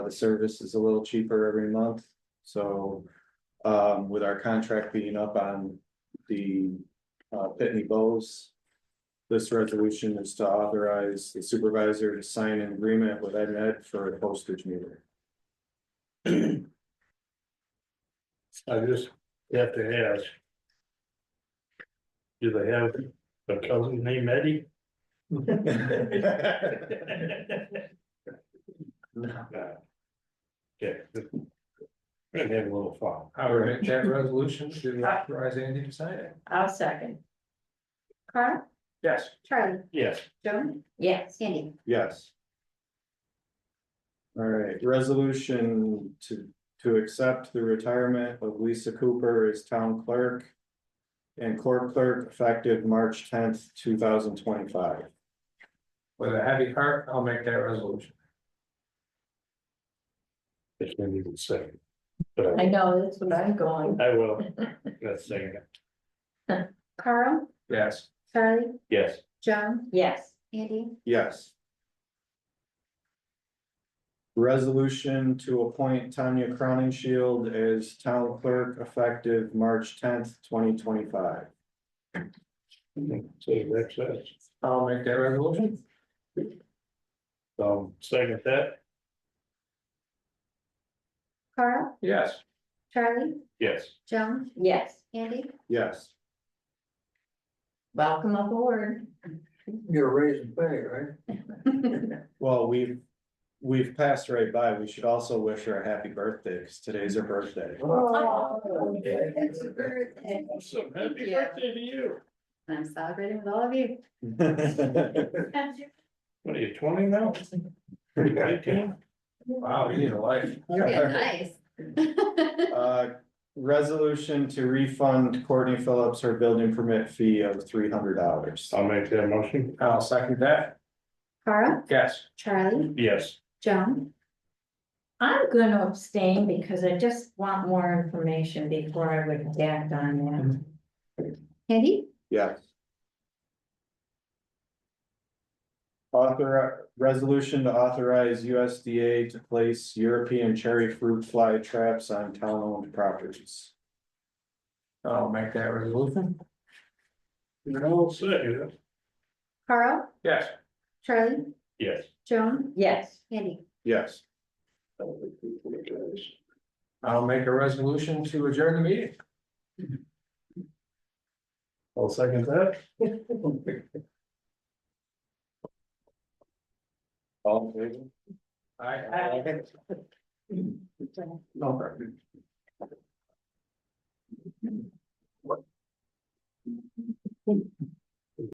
the service is a little cheaper every month, so. Um, with our contract being up on the uh Pitney Bowes. This resolution is to authorize the supervisor to sign an agreement with EdNet for a postage meter. I just have to ask. Do they have a cousin named Eddie? Yeah. Gonna have a little fun. I would make that resolution to authorize Andy to sign it. I'll second. Carl, Yes. Charlie, Yes, Joan, Yes, Sandy, Yes. All right, resolution to, to accept the retirement of Lisa Cooper as town clerk. And court clerk effective March tenth, two thousand twenty-five. With a heavy heart, I'll make that resolution. it's been even second. But I I- know, that's what I'm going. I will, that's saying, it. Carl, Yes. Charlie, yes, Joan, Yes, Andy, Yes. Resolution to appoint Tanya Crowning Shield as town clerk effective March tenth, twenty twenty-five. so that's us. I'll make that resolution. Um, second that, Carl, Yes. Charlie, yes, Joan, yes. Andy, Yes. Welcome aboard. You're raising pay, right? Well, we've, we've passed right by. We should also wish her a happy birthday, because today's her birthday. awesome, happy Yeah. birthday to you, I'm celebrating with all of you. what are you, twenty now? Nineteen? Wow, you need a life. Yeah, nice. Uh, resolution to refund Courtney Phillips her building permit fee of three hundred dollars. I'll make that motion, I'll second that. Carl, Yes. Charlie, yes, Joan, I'm gonna abstain because I just want more information before I would act on Andy, Yes. Author, resolution to authorize USDA to place European cherry fruit fly traps on town-owned properties. I'll make that resolution. you're all set, yeah? Carl, Yes. Charlie, yes. Joan, that. Yes, Andy, Yes. I'll make a resolution to adjourn the meeting. I'll second that, All in favor? I. No problem.